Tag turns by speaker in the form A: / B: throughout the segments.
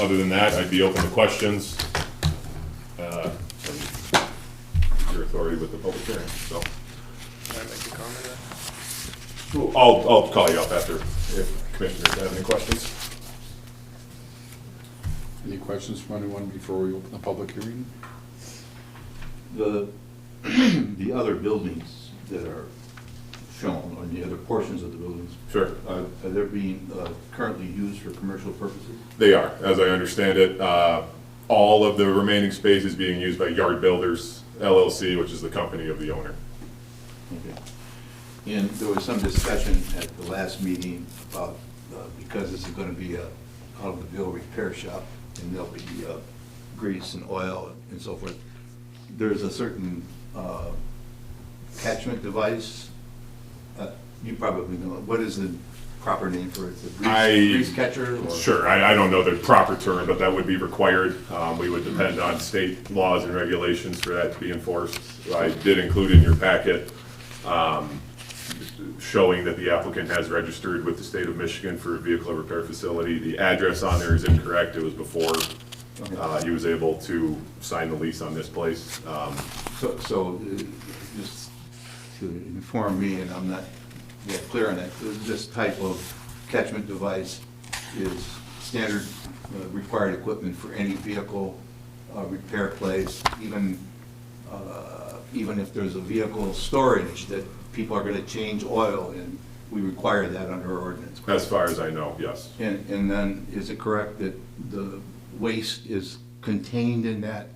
A: other than that, I'd be open to questions. uh, and Your authority with the public hearing, so.
B: Can I make a comment?
A: I'll, I'll call you up after if commissioners have any questions.
C: Any questions from anyone before we open the public hearing?
D: The, the other buildings that are shown, or the other portions of the buildings,
A: Sure.
D: are, are they being uh, currently used for commercial purposes?
A: They are, as I understand it. Uh, All of the remaining space is being used by Yard Builders LLC, which is the company of the owner.
D: Okay. And there was some discussion at the last meeting about, uh, because this is gonna be a automobile repair shop, and there'll be uh, grease and oil and so forth, there's a certain uh, catchment device, Uh, you probably know, it. what is the proper name for it? Is it
A: I-
D: grease- Grease catcher? or-
A: Sure, I, I don't know the proper term, but that would be required. Um, we would depend on state laws and regulations for that to be enforced. I did include in your packet, um, showing that the applicant has registered with the state of Michigan for a vehicle repair facility. The address on there is incorrect, it was before, uh, he was able to sign the lease on this place. Um,
D: So, so, uh, just to inform me, and I'm not yet clear on it, this type of catchment device is standard uh, required equipment for any vehicle uh, repair place, even, uh, even if there's a vehicle storage that people are gonna change oil, and we require that under ordinance.
A: As far as I know, yes.
D: And, and then, is it correct that the waste is contained in that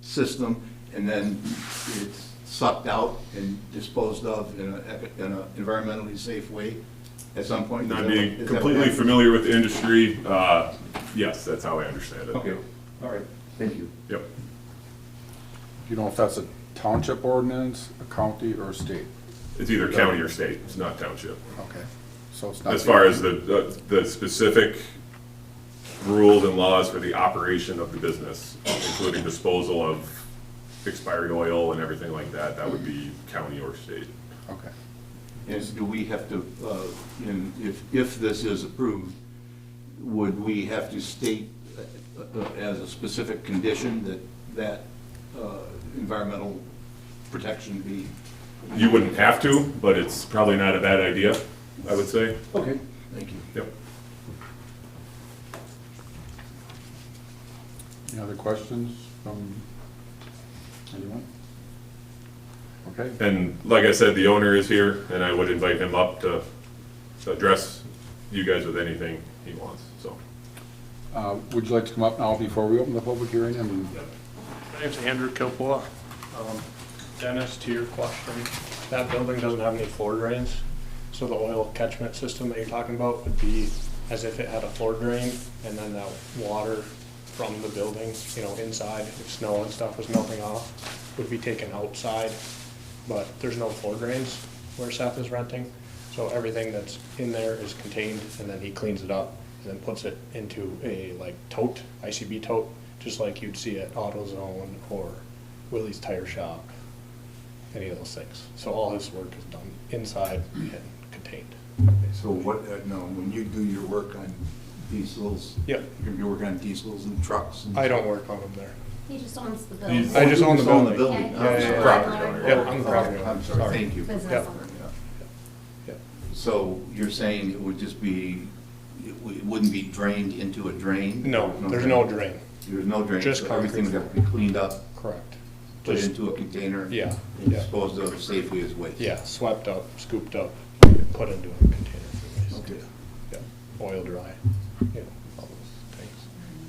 D: system, and then it's sucked out and disposed of in a, in a environmentally safe way at some point? Is
A: Not
D: that what- is
A: being
D: that what
A: completely
D: happened?
A: familiar with the industry, uh, yes, that's how I understand it.
D: Okay, all right, thank you.
A: Yep.
C: Do you know if that's a township ordinance, a county, or a state?
A: It's either county or state, it's not township.
C: Okay, so it's not.
A: As far as the- the, the specific rules and laws for the operation of the business, including disposal of expired oil and everything like that, that would be county or state.
C: Okay,
D: Is, do we have to, uh, in, if, if this is approved, would we have to state uh, uh, as a specific condition that, that uh, environmental protection be?
A: You wouldn't have to, but it's probably not a bad idea, I would say.
D: Okay. Thank you.
A: Yep.
C: any other questions from anyone? Okay,
A: And like I said, the owner is here, and I would invite him up to address you guys with anything he wants, so.
C: uh, would you like to come up now before we open the public hearing and?
B: My name's Andrew Kilpua. Um, Dennis, to your question, that building doesn't have any floor drains, so the oil catchment system that you're talking about would be as if it had a floor drain, and then that water from the building, you know, inside, if snow and stuff was melting off, would be taken outside, but there's no floor drains where Seth is renting, so everything that's in there is contained, and then he cleans it up, and then puts it into a like tote, ICB tote, just like you'd see at AutoZone or Willie's Tire Shop, any of those things. So all his work is done inside and contained.
D: So what, uh, no, when you do your work on diesels?
B: Yep.
D: You're gonna be working on diesels and trucks and?
B: I don't work on them there.
E: He just owns the
A: He's-
E: building.
B: I just own the
D: Own the
B: building.
D: building.
B: Yeah, yeah, yeah.
A: Property owner.
B: Yeah, I'm the property owner.
D: I'm sorry,
B: Sorry.
D: thank you.
E: Business
B: Yep.
E: owner.
D: Yeah.
B: Yeah.
D: So you're saying it would just be, it w- it wouldn't be drained into a drain?
B: No, there's no drain.
D: There's no drain?
B: Just
D: so Everything would
B: concrete.
D: have to be cleaned up,
B: Correct.
D: put
B: Just-
D: into a container?
B: Yeah,
D: And
B: yeah.
D: disposed of safely as waste?
B: Yeah, swept up, scooped up, put into a container for
D: Okay.
B: waste. Yeah, oil dry, you know, all those things.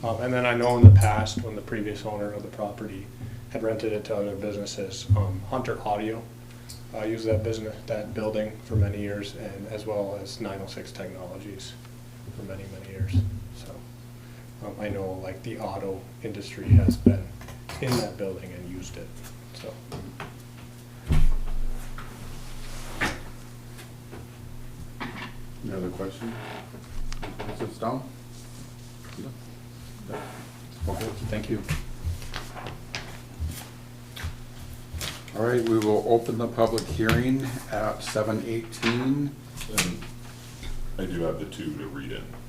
B: Um, and then I know in the past, when the previous owner of the property had rented it to other businesses, um, Hunter Audio, uh, used that business, that building for many years, and as well as nine oh six Technologies for many, many years, so. Um, I know like the auto industry has been in that building and used it, so.
C: Any other questions? Is this down? Okay, thank you. All right, we will open the public hearing at seven eighteen.
A: And I do have the two to read in.